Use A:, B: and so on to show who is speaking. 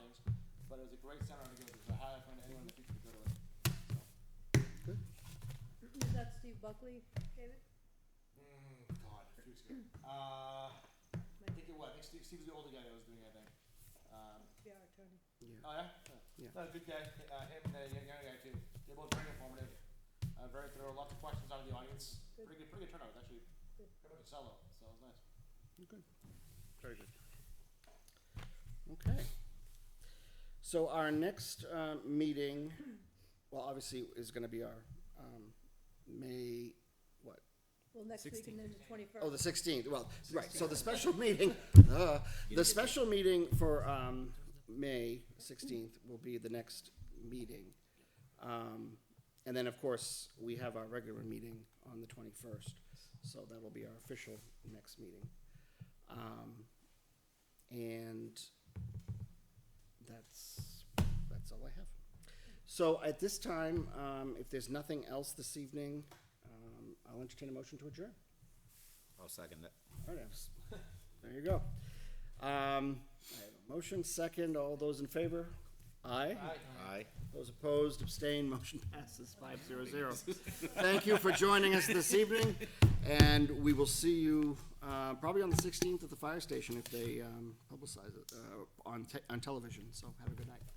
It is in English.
A: thought it was a great seminar to go to, so I highly recommend anyone in the future to go to it.
B: Was that Steve Buckley, David?
A: Mm, God, a few weeks ago. Uh, I think it was, I think Steve, Steve was the older guy that was doing it, I think. Um,
B: Yeah, our attorney.
C: Yeah.
A: oh, yeah?
C: Yeah.
A: No, good guy, uh, him and the young- younger guy too. They're both very informative, uh, very thorough, lots of questions out of the audience.
B: Good.
A: Pretty good, pretty good turnout, It was actually.
B: Good.
A: Pretty much a sellout, so it was nice.
C: Good. Very good. Okay. So our next uh, meeting, well, obviously, is going to be our um, May, what?
B: Well, next week and then the twenty-first.
C: Oh, the 16th. Well, right. So the special meeting, uh, the special meeting for um, May 16th will be the next meeting. Um, and then, of course, we have our regular meeting on the 21st. So that will be our official next meeting. Um, and that's that's all I have. So at this time, um, if there's nothing else this evening, um, I'll entertain a motion to adjourn.
D: I'll second that.
C: All right, abs- There you go. Um, I have a motion, second, all those in favor? Aye.
A: Aye.
D: Aye.
C: Those opposed, abstained, motion passes five zero zero. Thank you for joining us this evening, and we will see you, uh, probably on the sixteenth at the fire station if they, um, publicize it, uh, on te- on television, so have a good night.